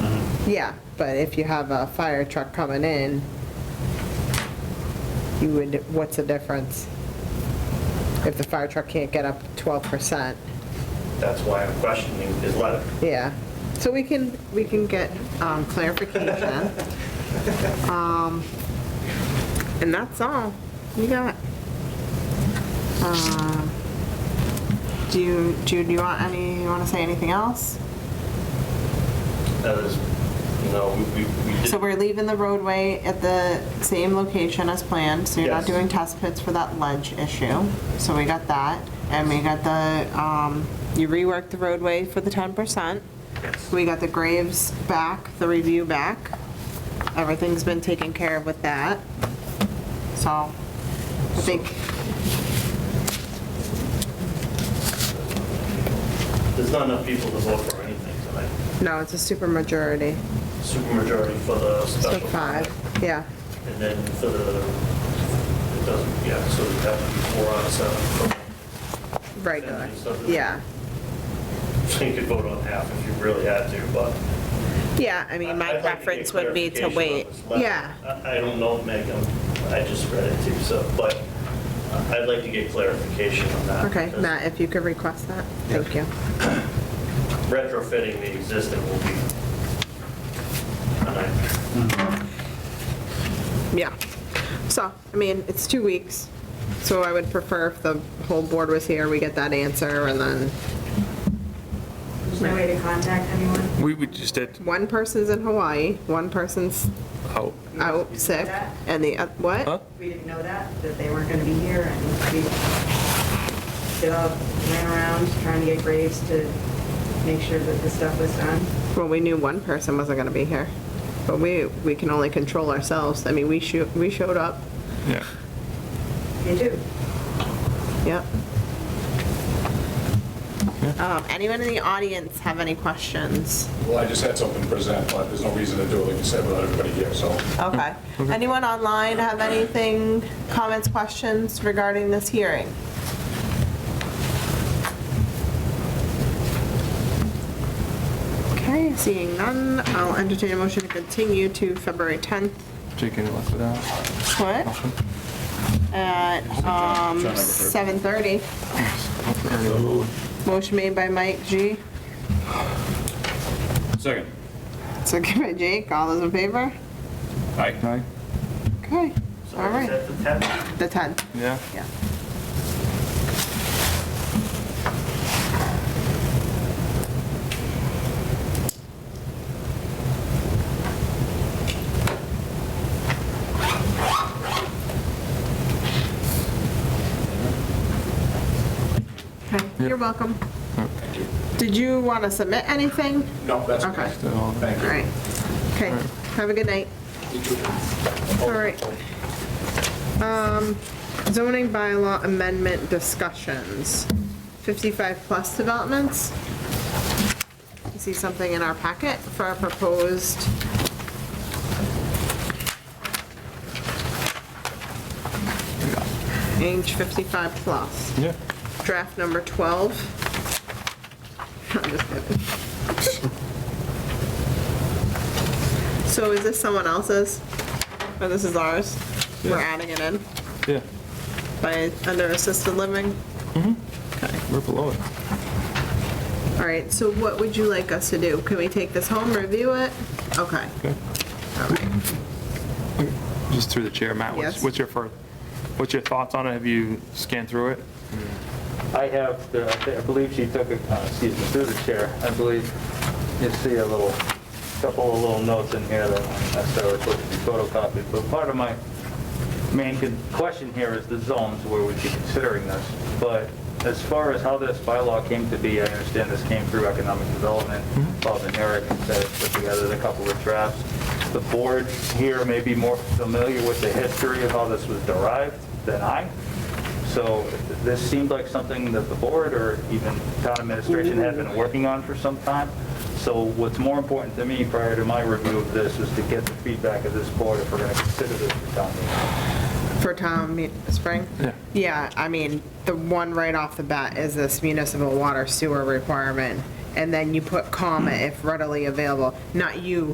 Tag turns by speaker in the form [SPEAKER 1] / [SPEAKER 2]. [SPEAKER 1] Yeah, but if you have a fire truck coming in, you would, what's the difference? If the fire truck can't get up 12%,
[SPEAKER 2] That's why I'm questioning his letter.
[SPEAKER 1] yeah. So we can, we can get um, clarification. Um, And that's all we got. Um, Do you, Jude, do you want any, you want to say anything else?
[SPEAKER 2] That is, you know, we, we we did.
[SPEAKER 1] So we're leaving the roadway at the same location as planned, so you're not
[SPEAKER 2] Yes.
[SPEAKER 1] doing test pits for that ledge issue. So we got that, and we got the, um, you reworked the roadway for the ten percent.
[SPEAKER 2] Yes.
[SPEAKER 1] We got the graves back, the review back. Everything's been taken care of with that. So, I think,
[SPEAKER 2] There's not enough people to vote for anything tonight.
[SPEAKER 1] no, it's a super majority,
[SPEAKER 2] Supermajority for the
[SPEAKER 1] so
[SPEAKER 2] special.
[SPEAKER 1] five, yeah.
[SPEAKER 2] And then for the, it doesn't, yeah, so we have to be four out of seven.
[SPEAKER 1] Regular,
[SPEAKER 2] Family subdivision.
[SPEAKER 1] yeah.
[SPEAKER 2] So you could vote on half if you really had to, but.
[SPEAKER 1] Yeah, I mean, my
[SPEAKER 2] I'd like to get
[SPEAKER 1] preference would be to wait.
[SPEAKER 2] clarification on this letter.
[SPEAKER 1] Yeah,
[SPEAKER 2] I I don't know, Meg, I'm- I just read it too, so, but I'd like to get clarification on that.
[SPEAKER 1] okay,
[SPEAKER 2] because
[SPEAKER 1] Matt, if you could request that, thank you.
[SPEAKER 2] Retrofitting the existing will be a nightmare.
[SPEAKER 1] Yeah. So, I mean, it's two weeks, so I would prefer if the whole board was here, we get that answer, and then
[SPEAKER 3] There's no way to contact anyone.
[SPEAKER 4] We would just did
[SPEAKER 1] one person's in Hawaii, one person's
[SPEAKER 4] out.
[SPEAKER 1] out sick, and the, oth-
[SPEAKER 4] Huh?
[SPEAKER 1] what?
[SPEAKER 3] We didn't know that, that they weren't gonna be here, and we stood up, ran around trying to get Graves to make sure that the stuff was done.
[SPEAKER 1] Well, we knew one person wasn't gonna be here, but we, we can only control ourselves. I mean, we sho we showed up,
[SPEAKER 4] Yeah.
[SPEAKER 3] They do.
[SPEAKER 1] yep. Um, Anyone in the audience have any questions?
[SPEAKER 5] Well, I just had something to present, but there's no reason to do it, like you said, without everybody here, so.
[SPEAKER 1] Okay. Anyone online have anything, comments, questions regarding this hearing? Okay, seeing none, I'll entertain a motion to continue to February 10th.
[SPEAKER 4] Jake, any left with that?
[SPEAKER 1] What?
[SPEAKER 4] Motion?
[SPEAKER 1] At um, 7:30. Motion made by Mike G.
[SPEAKER 5] Second.
[SPEAKER 1] Second by Jake. All those in favor?
[SPEAKER 5] Aye.
[SPEAKER 4] Aye?
[SPEAKER 1] Okay,
[SPEAKER 2] So
[SPEAKER 1] all
[SPEAKER 2] is
[SPEAKER 1] right.
[SPEAKER 2] that the
[SPEAKER 1] The
[SPEAKER 2] 10th?
[SPEAKER 1] 10th,
[SPEAKER 4] Yeah?
[SPEAKER 1] yeah. Okay,
[SPEAKER 4] Yeah.
[SPEAKER 1] you're welcome. Did you want to submit anything?
[SPEAKER 5] No, that's
[SPEAKER 1] Okay.
[SPEAKER 5] okay.
[SPEAKER 4] Did all that.
[SPEAKER 5] Thank
[SPEAKER 1] All
[SPEAKER 5] you.
[SPEAKER 1] right. Okay,
[SPEAKER 4] All right.
[SPEAKER 1] have a good night. All right. Um, Zoning bylaw amendment discussions. 55-plus developments. You see something in our packet for our proposed, age 55-plus.
[SPEAKER 4] Yeah.
[SPEAKER 1] Draft number 12. I'm just kidding. So is this someone else's? Or this is ours? We're
[SPEAKER 4] Yeah.
[SPEAKER 1] adding it in
[SPEAKER 4] Yeah.
[SPEAKER 1] by, under assisted living?
[SPEAKER 4] We're below it.
[SPEAKER 1] All right, so what would you like us to do? Can we take this home, review it? Okay.
[SPEAKER 4] Okay.
[SPEAKER 1] All right.
[SPEAKER 4] Just through the chair, Matt, what's,
[SPEAKER 1] Yes.
[SPEAKER 4] what's your first, what's your thoughts on it? Have you scanned through it?
[SPEAKER 6] I have, the- I thi- I believe she took, a- uh, excuse me, through the chair, I believe you see a little, couple of little notes in here that aren't necessarily supposed to be photocopied, but part of my main con- question here is the zones where we'd be considering this. But as far as how this bylaw came to be, I understand this came through economic development. Bob and Eric had put together a couple of drafts. The board here may be more familiar with the history of how this was derived than I. So this seemed like something that the board or even town administration had been working on for some time. So what's more important to me prior to my review of this is to get the feedback of this board if we're going to consider this for town meeting.
[SPEAKER 1] For Tom, me- Spring?
[SPEAKER 4] Yeah.
[SPEAKER 1] Yeah, I mean, the one right off the bat is this municipal water sewer requirement. And then you put comma if readily available, not you,